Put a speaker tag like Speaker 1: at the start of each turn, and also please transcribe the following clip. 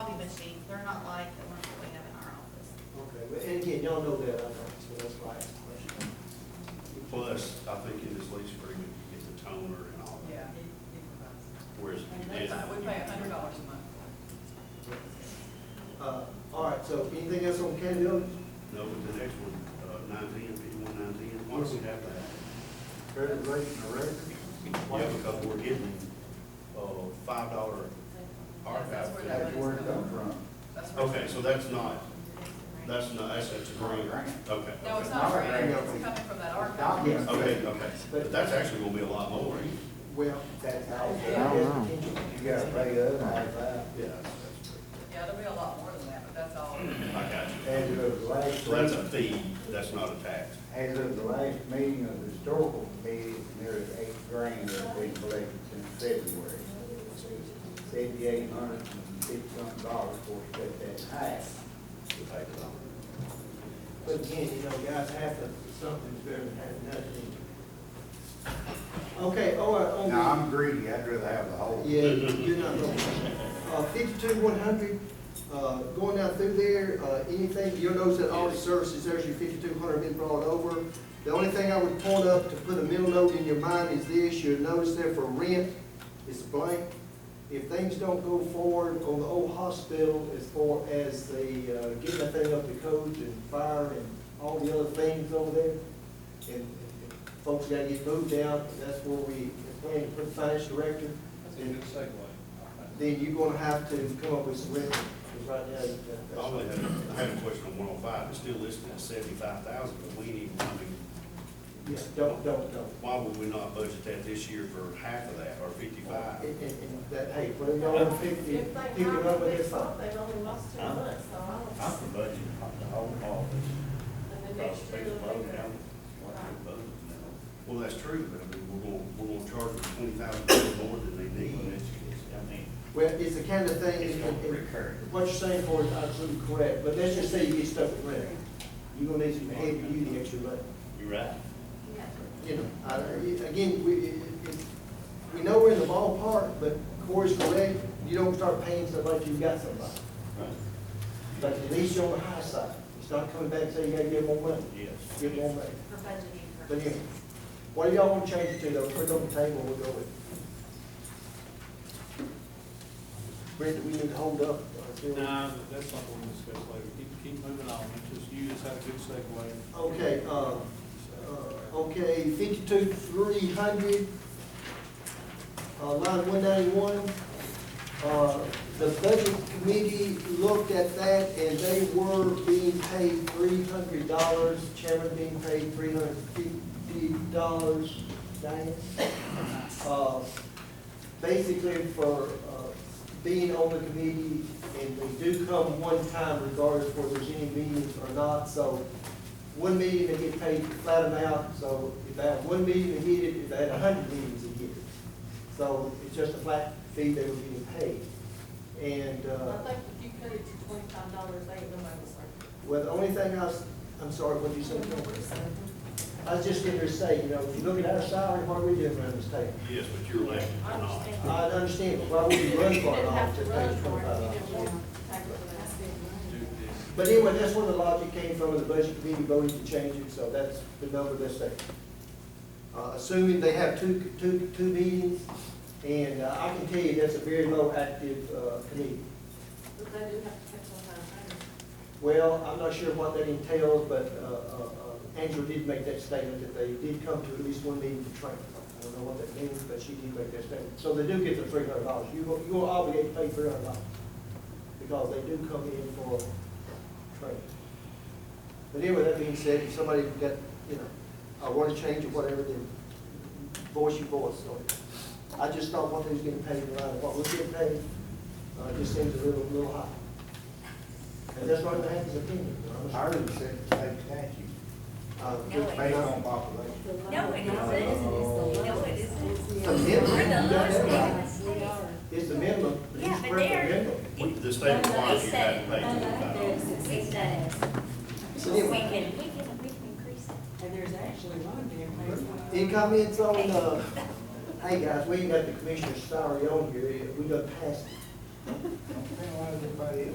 Speaker 1: y'all know that, I know, so that's why I asked the question.
Speaker 2: Plus, I think in this lease agreement, you get the toner and all that,
Speaker 3: Yeah, he, he provides.
Speaker 2: whereas
Speaker 3: And
Speaker 2: you
Speaker 3: that's, we pay a hundred dollars a month.
Speaker 1: Uh, all right, so anything else on county village?
Speaker 2: No, but the next one, uh, nineteen, fifty-one nineteen, why don't we have that?
Speaker 4: Credit rating or record?
Speaker 2: Yeah, because we're getting, uh, five dollar
Speaker 3: That's
Speaker 2: archive.
Speaker 3: where
Speaker 2: fee.
Speaker 3: that
Speaker 4: That's where it come from.
Speaker 3: That's where-
Speaker 2: Okay, so that's not, that's not, that's, that's a grant, okay.
Speaker 3: No, it's
Speaker 4: Not
Speaker 3: not
Speaker 4: a
Speaker 3: right,
Speaker 4: grant.
Speaker 3: it's coming from that archive.
Speaker 4: Documents.
Speaker 2: Okay, okay, but that's actually gonna be a lot more,
Speaker 1: Well, that's how.
Speaker 3: Yeah.
Speaker 4: You gotta pay up, high five.
Speaker 2: yeah, that's, that's true.
Speaker 3: Yeah, there'll be a lot more than that, but that's all.
Speaker 2: I got you.
Speaker 4: As of the last,
Speaker 2: So that's a fee, that's not a tax.
Speaker 4: as of the last meeting of the historical committee, there is eight grand that's been collected since February. Seventy-eight hundred and fifty-some dollars for that, that's half.
Speaker 2: to pay the dollar.
Speaker 1: But again, you know, guys, half of something's better than half nothing. Okay, all right, on the.
Speaker 4: Now, I'm greedy, I'd rather have the whole.
Speaker 1: Yeah, you're not wrong. Uh, fifty-two, one hundred, uh, going down through there, uh, anything, you'll notice that audit services, there's your fifty-two hundred been brought over. The only thing I would point up to put a middle note in your mind is this, you'll notice there for rent, it's blank. If things don't go forward on the old hospital as far as the, uh, getting that thing up to code and fire and all the other things over there, and and folks gotta get moved out, that's where we plan to put the finance director. And then you're gonna have to come up with some revenue, because right now, that- that's.
Speaker 2: I only had, I had a question on one oh five, it's still listed at seventy-five thousand, but we need, I mean,
Speaker 1: Yeah, don't, don't, don't.
Speaker 2: why would we not budget that this year for half of that, or fifty-five?
Speaker 1: And, and, and that, hey, put it on fifty,
Speaker 5: If they
Speaker 1: fifty
Speaker 5: hire
Speaker 1: number,
Speaker 5: them
Speaker 1: that's
Speaker 5: next
Speaker 1: fine.
Speaker 5: month, they've only lost two
Speaker 6: Huh?
Speaker 5: months, so I don't.
Speaker 6: I'm for budget, I'm the whole office.
Speaker 5: And then next year,
Speaker 6: People
Speaker 5: they'll
Speaker 6: vote
Speaker 5: be-
Speaker 6: down what they voted now.
Speaker 2: Well, that's true, but I mean, we're gonna, we're gonna charge them twenty thousand dollars more than they need.
Speaker 6: Even if it's- I mean,
Speaker 1: Well, it's the kind of thing,
Speaker 6: it's
Speaker 1: and-
Speaker 6: gonna
Speaker 1: and-
Speaker 6: recur.
Speaker 1: and what you're saying for is absolutely correct, but let's just say you get stuck with rent. You're gonna need some heavy duty extra money.
Speaker 6: You're right.
Speaker 1: you know, I, I- again, we, it- it- we know we're in the ballpark, but Corey's correct, you don't start paying somebody till you got somebody.
Speaker 6: Right.
Speaker 1: But at least you're on the high side, it's not coming back and saying you gotta give more money,
Speaker 6: Yes.
Speaker 1: give more money. But anyway, what do y'all want to change it to though, put it on the table, we'll go with it. Brent, we need to hold up. until-
Speaker 7: Nah, but that's not going to discuss later. Keep, keep moving on. It's just, you just had a good segue.
Speaker 1: Okay, uh, uh, okay, fifty-two, three hundred, uh, line one ninety-one. Uh, the budget committee looked at that and they were being paid three hundred dollars, chairman being paid three hundred fifty dollars, Diane. Uh, basically for, uh, being on the committee and they do come one time regardless of whether there's any meetings or not, so one meeting they get paid flat amount, so if they had one meeting, they get it, if they had a hundred meetings, they get it. So it's just a flat fee they were getting paid. And,
Speaker 5: I
Speaker 1: uh,
Speaker 5: think if you cut it to twenty-five dollars, they ain't nobody certain.
Speaker 1: well, the only thing I was, I'm sorry, what did you say? I was just gonna say, you know, if you look at our salary, what are we doing around this table?
Speaker 2: Yes, but you're elected or
Speaker 5: I
Speaker 2: not.
Speaker 5: understand.
Speaker 1: I understand, but why would you run
Speaker 5: You
Speaker 1: for an
Speaker 5: didn't have to
Speaker 1: office that
Speaker 5: run
Speaker 1: pays
Speaker 5: for
Speaker 1: twenty-five dollars?
Speaker 5: it, you didn't want to take it for
Speaker 7: Do
Speaker 5: that.
Speaker 7: this.
Speaker 1: But anyway, that's where the logic came from, the budget committee voted to change it, so that's the number that's there. Uh, assuming they have two, two, two meetings, and uh, I can tell you that's a very low active, uh, committee.
Speaker 5: But they do have to catch on time.
Speaker 1: Well, I'm not sure what that entails, but, uh, uh, uh, Angela did make that statement that they did come to at least one meeting to train. I don't know what that means, but she did make that statement. So they do get the three hundred dollars. You, go- you are obligated to pay three hundred dollars because they do come in for training. But anyway, that being said, if somebody got, you know, I want to change or whatever, then voice your voice on it. I just thought what they was getting paid, right, what was getting paid, uh, just seems a little, little high. And that's right, I have his opinion. you know, I'm
Speaker 4: Ours
Speaker 1: sure.
Speaker 4: is set the same statute,
Speaker 1: Uh,
Speaker 4: based on population.
Speaker 8: No, it isn't. No, it isn't. We're
Speaker 1: The minimum, you
Speaker 8: the lowest state.
Speaker 1: got that right. It's
Speaker 5: E
Speaker 1: the minimum. but
Speaker 8: Yeah,
Speaker 1: it's
Speaker 8: but
Speaker 1: worth the
Speaker 8: they're.
Speaker 1: minimum.
Speaker 2: We- The state requires you back to pay twenty-five dollars.
Speaker 8: We said it.
Speaker 1: So
Speaker 8: We
Speaker 1: anyway,
Speaker 8: can, we can, we can increase it.
Speaker 5: And there's actually one being
Speaker 1: Any comments on, uh, hey guys, we ain't got the commissioner's salary on here, we done passed it.
Speaker 4: I don't think why everybody